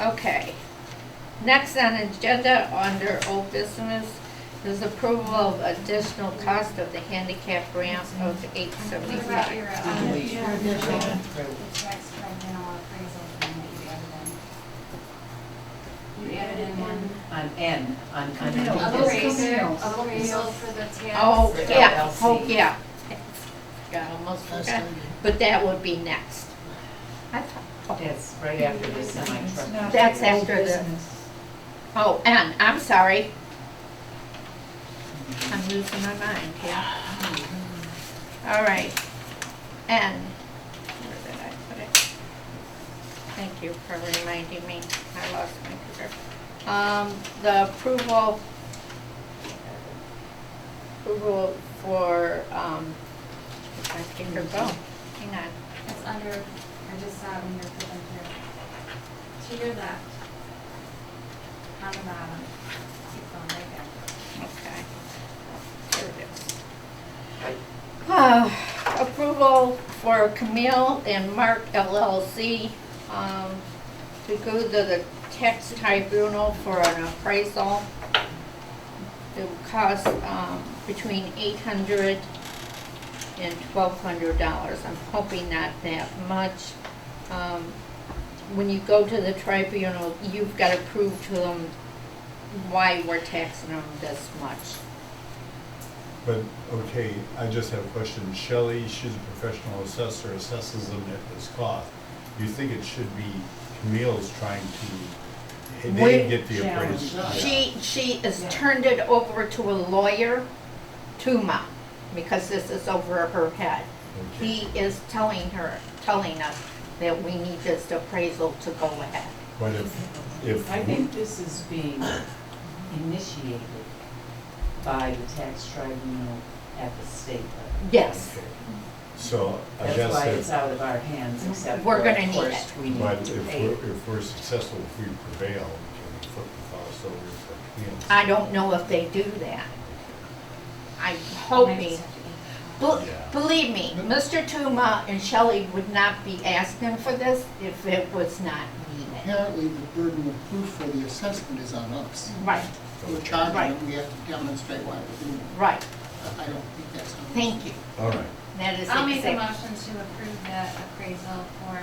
Okay. Next on agenda under old business is approval of additional cost of the handicap ramp of eight What about your, seventy-five. uh, Delete. your Delete. tax revenue appraisal thing that you added in? You added in one On N, on, on. No, D. other way. appraisal, Yes. appraisal for the tax. Oh, Without yeah, LC. oh, yeah. Got almost forgot, but that would be next. I thought, That's right after the semi-truck. That's after the- oh, and, I'm sorry. I'm losing my mind, yeah. All right, and, where did I put it? Thank you for reminding me, I lost my paper. Um, the approval, approval for, um, if I can go, hang on. It's under, I just saw it when you were flipping through. To your left. On the bottom. Keep going right there. Okay. There it is. Uh, Approval for Camille and Mark LLC um, to go to the tax tribunal for an appraisal. It will cost um, between $800 and $1,200. I'm hoping not that much. Um, When you go to the tribunal, you've got to prove to them why we're taxing them this much. But, okay, I just have a question. Shelley, she's a professional assessor, assesses them at this cost. You think it should be Camille's trying to, Wait, they get the challenge appraisal. us. Oh, Yeah. She, she has Yeah. turned it over to a lawyer, Tuma, because this is over her head. Okay. He is telling her, telling us that we need this appraisal to go ahead. But if, if. I think this is being initiated by the tax tribunal at the state level. Yes, So I That's why it's guess out of our hands, except We're for, gonna of need course, it. we that, but need to if pay. we're, if we're successful, if we prevail, we can flip the files over for Camille. I don't know if they do that. I'm hoping, Bel- Yeah. believe me, Mr. Tuma and Shelley would not be asking for this if it was not needed. Apparently, the burden of proof for the assessment is on us. Right, We're Right. charging, them, we have to demonstrate why we're doing it. right, I- I don't think that's. on us. thank you, All right. that is I'll make a exactly. motion to approve the appraisal for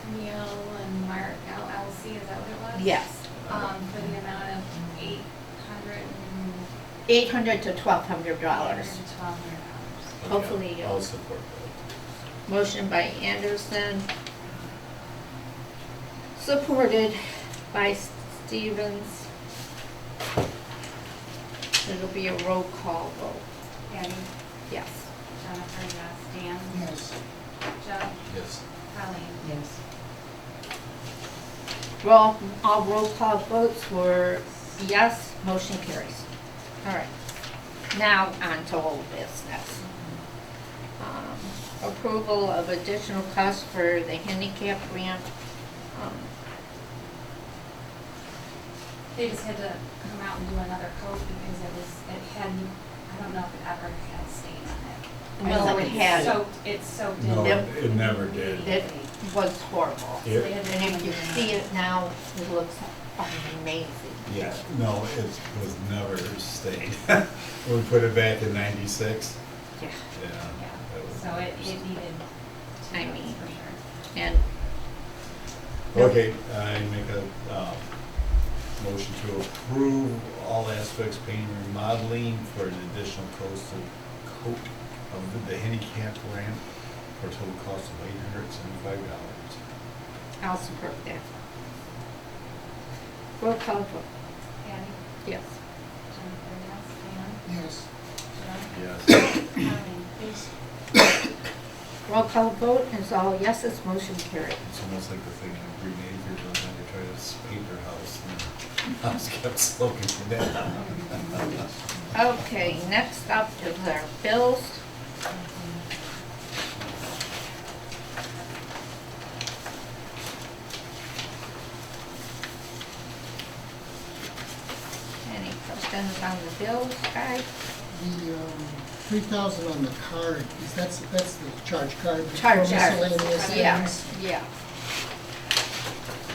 Camille and Mark LLC, is that what it was? Yes, Um, for the amount of eight hundred and eight hundred to twelve hundred dollars. Twelve hundred dollars. Okay, Hopefully you'll- I'll support that. Motion by Anderson, supported by Stevens. It'll be a roll call vote, Patty, yes. Jennifer, yes, Dan, Yes, Joe, Yes. Colleen. Yes. Roll, all roll call votes were yes, motion carries. All right, now on to old business. Um, Approval of additional costs for the handicap ramp. Um, They just had to come out and do another coat because it was, it had, I don't know if it ever had stain on it. Well, So it it's had. soaked- It's soaked in. No, Yep. it never did. It was horrible. So they had to And come if you and do see it. it now, it looks amazing. Yeah, no, it was never stayed. We put it back in ninety-six, Yeah. yeah. Yeah, that was- so it, it needed two I coats mean- for sure. And Okay, I make a, um, motion to approve all aspects painting and remodeling for an additional cost of, coat of the handicap ramp for a total cost of eight hundred seventy-five dollars. I'll support that. Roll call vote, Patty, yes. Jennifer, yes, Dan, yes. Joe, Yes. Colleen. Roll call vote is all yeses, motion carried. It's almost like the thing in Green Acres, when they try to paint their house, and the house kept smoking to death. Okay, next up is our bills. Any questions on the bills, guys? The um, three thousand on the card, is that's, that's the charge card? for Charge, charge. Miscellaneous Yeah, things? yeah.